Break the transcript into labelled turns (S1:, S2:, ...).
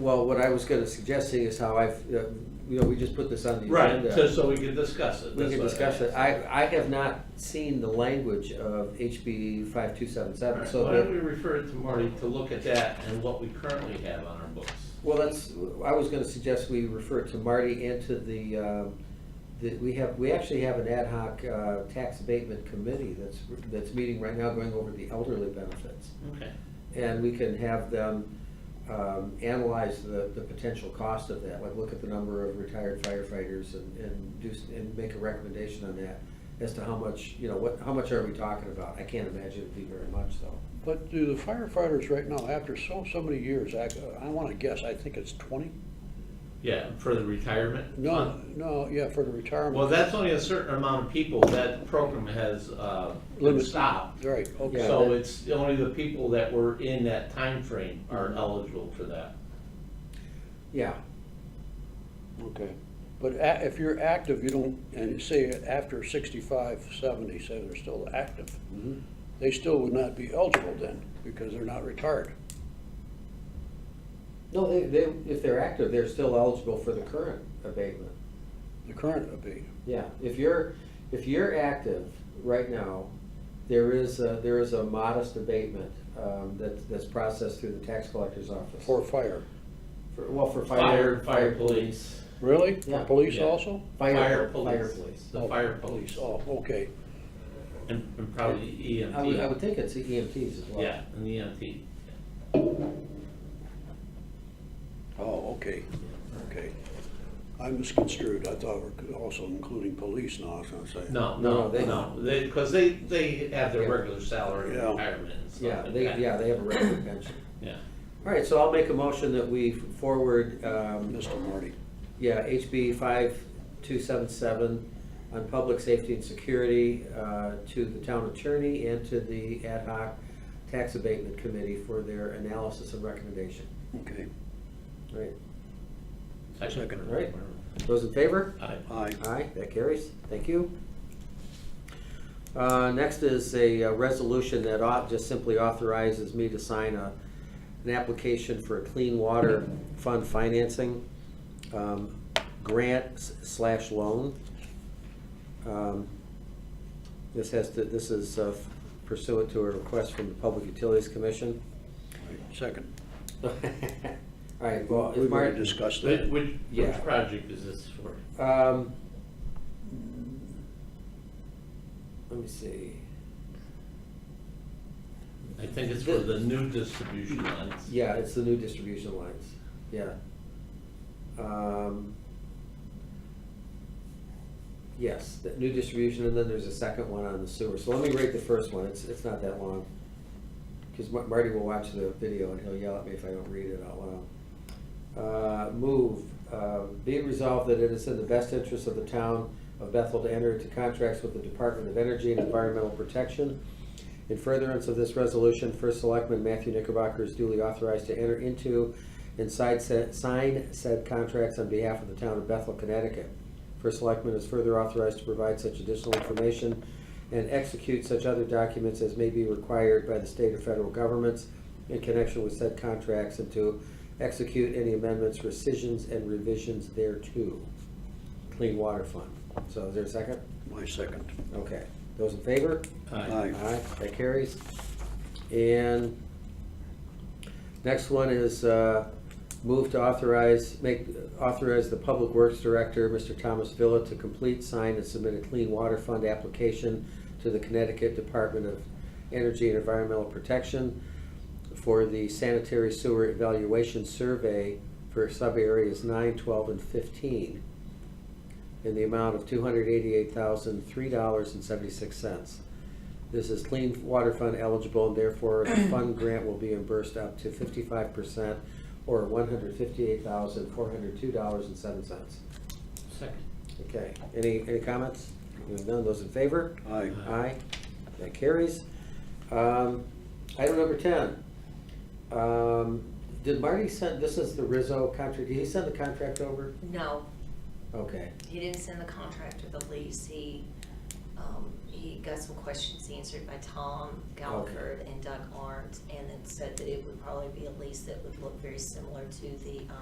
S1: Well, what I was gonna suggesting is how I've, uh, you know, we just put this on the
S2: Right,
S1: agenda.
S2: so, so we can discuss it.
S1: We
S2: that's
S1: can
S2: what I
S1: discuss it.
S2: asked.
S1: I, I have not seen the language of HB five two seven
S2: All
S1: seven,
S2: right,
S1: so
S2: Why don't we
S1: that,
S2: refer it to Marty to look at that and what we currently have on our books?
S1: well, that's, I was gonna suggest we refer to Marty and to the, um, the, we have, we actually have an ad hoc, uh, tax abatement committee that's, that's meeting right now going over the elderly benefits.
S2: Okay.
S1: And we can have them um, analyze the, the potential cost of that, like look at the number of retired firefighters and, and do, s- and make a recommendation on that as to how much, you know, what, how much are we talking about? I can't imagine it'd be very much though.
S3: But do the firefighters right now, after so, so many years, I, I wanna guess, I think it's twenty?
S2: Yeah, for the retirement?
S3: No,
S2: fund.
S3: no, yeah, for the retirement.
S2: Well, that's only a certain amount of people, that program has, uh, been
S3: Limit.
S2: stopped.
S3: Right, okay.
S1: Yeah,
S2: So
S1: that-
S2: it's only the people that were in that time frame are eligible for that.
S1: Yeah,
S3: Okay, but a- if you're active, you don't, and say after sixty-five, seventy, say they're still active,
S1: Mhm.
S3: they still would not be eligible then, because they're not retired.
S1: no, they, they, if they're active, they're still eligible for the current abatement.
S3: The current would be,
S1: Yeah, if you're, if you're active right now, there is, a- there is a modest abatement um, that, that's processed through the tax collector's office.
S3: for fire.
S1: For- Well, for
S2: Fire,
S1: fire,
S2: fire
S1: fire
S2: police.
S1: police.
S3: Really?
S1: Yeah.
S3: For police
S2: Yeah.
S3: also?
S1: Fire, fire police.
S2: The fire police,
S3: Oh, okay,
S2: and and probably EMT.
S1: I would, I would think it's the EMTs as well.
S2: Yeah, and E the EMT.
S3: oh, okay, okay. I misconstrued, I thought we're also including police now, I was gonna say.
S2: No, no,
S1: No, they-
S2: no, they, because they, they have their
S1: Yeah.
S2: regular salary
S3: Yeah.
S2: retirement and stuff
S1: Yeah,
S2: like
S1: they,
S2: that.
S1: yeah, they have a regular pension.
S2: Yeah.
S1: All right, so I'll make a motion that we forward, um,
S3: Mr. Marty.
S1: yeah, HB five two seven seven on public safety and security, uh, to the town attorney and to the ad hoc tax abatement committee for their analysis and recommendation.
S3: Okay,
S1: All right,
S3: Second.
S1: all right, those in favor?
S2: Aye.
S3: aye.
S1: Aye, that carries. Thank you. Uh, Next is a uh, resolution that au- just simply authorizes me to sign a, an application for a clean water fund financing um, grant s- slash loan. Um, This has to, this is uh, pursuant to a request from the Public Utilities Commission.
S3: Second.
S1: All right, well,
S3: We've
S1: if
S3: already
S1: Martin,
S3: discussed
S2: Which,
S3: that.
S2: which
S1: Yeah.
S2: project is this for?
S1: Um, Let me see.
S2: I think it's for the new distribution lines.
S1: Yeah, it's the new distribution lines, yeah. Um, Yes, the new distribution, and then there's a second one on the sewer, so let me rate the first one, it's, it's not that long. Because Marty will watch the video and he'll yell at me if I don't read it out loud. Uh, Move, uh, be it resolved that it is in the best interest of the town of Bethel to enter into contracts with the Department of Energy and Environmental Protection in furtherance of this resolution, First Selectman Matthew Knickerbocker is duly authorized to enter into and side set- sign said contracts on behalf of the town of Bethel, Connecticut. First Selectman is further authorized to provide such additional information and execute such other documents as may be required by the state or federal governments in connection with said contracts and to execute any amendments, rescissions, and revisions thereto. Clean Water Fund. So is there a second?
S3: My second.
S1: Okay. Those in favor?
S3: Aye.
S1: Aye, that carries. And next one is uh, move to authorize, make, authorize the Public Works Director, Mr. Thomas Villa, to complete, sign, and submit a Clean Water Fund application to the Connecticut Department of Energy and Environmental Protection for the sanitary sewer evaluation survey for sub-areas nine, twelve, and fifteen in the amount of two hundred eighty-eight thousand, three dollars and seventy-six cents. This is clean water fund eligible and therefore the fund grant will be reimbursed up to fifty-five percent or one hundred fifty-eight thousand, four hundred two dollars and seven cents.
S2: Second.
S1: Okay, any, any comments? Hearing none, those in favor?
S3: Aye.
S1: Aye, that carries. Um, Item number ten. Um, Did Marty send, this is the Rizzo contract, did he send the contract over?
S4: No,
S1: Okay,
S4: he didn't send the contract with the lease, he, um, he he got some questions answered by Tom Galford and Doug Arndt, and then said that it would probably be a lease that would look very similar to the,